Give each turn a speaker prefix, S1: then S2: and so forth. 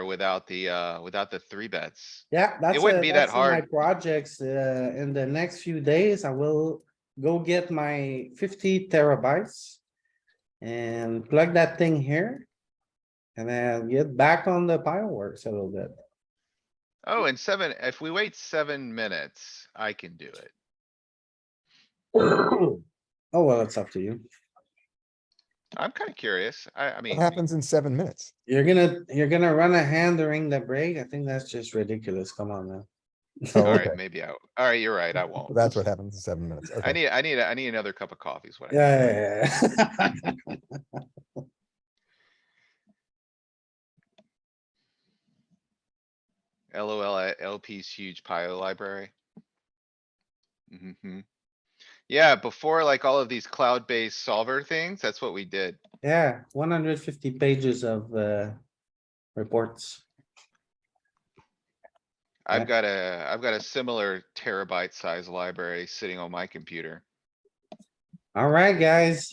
S1: without the, uh, without the three bets.
S2: Yeah, that's.
S1: wouldn't
S2: uh,
S1: be that
S2: that's in my
S1: hard.
S2: Projects, uh, in the next few days, I will go get my fifty terabytes. And plug that thing here. And then get back on the fireworks a little bit.
S1: Oh, and seven, if we wait seven minutes, I can do it.
S2: Oh, well, it's up to you.
S1: I'm kinda curious. I, I mean,
S3: What happens in seven minutes?
S2: You're gonna, you're gonna run a hand during the break. I think that's just ridiculous. Come on now.
S3: Oh, okay.
S1: alright, maybe I, alright, you're right, I won't.
S3: That's what happens in seven minutes.
S1: I
S3: Okay.
S1: need, I need, I need another cup of coffee is what I. need.
S2: Yeah, yeah, yeah.
S1: LOL at LP's uh, huge pile library. Mhm. Yeah, before like all of these cloud-based solver things, that's what we did.
S2: Yeah, one hundred fifty pages of, uh, reports. Yeah.
S1: I've got a, I've got a similar terabyte size library sitting on my computer.
S2: Alright, guys,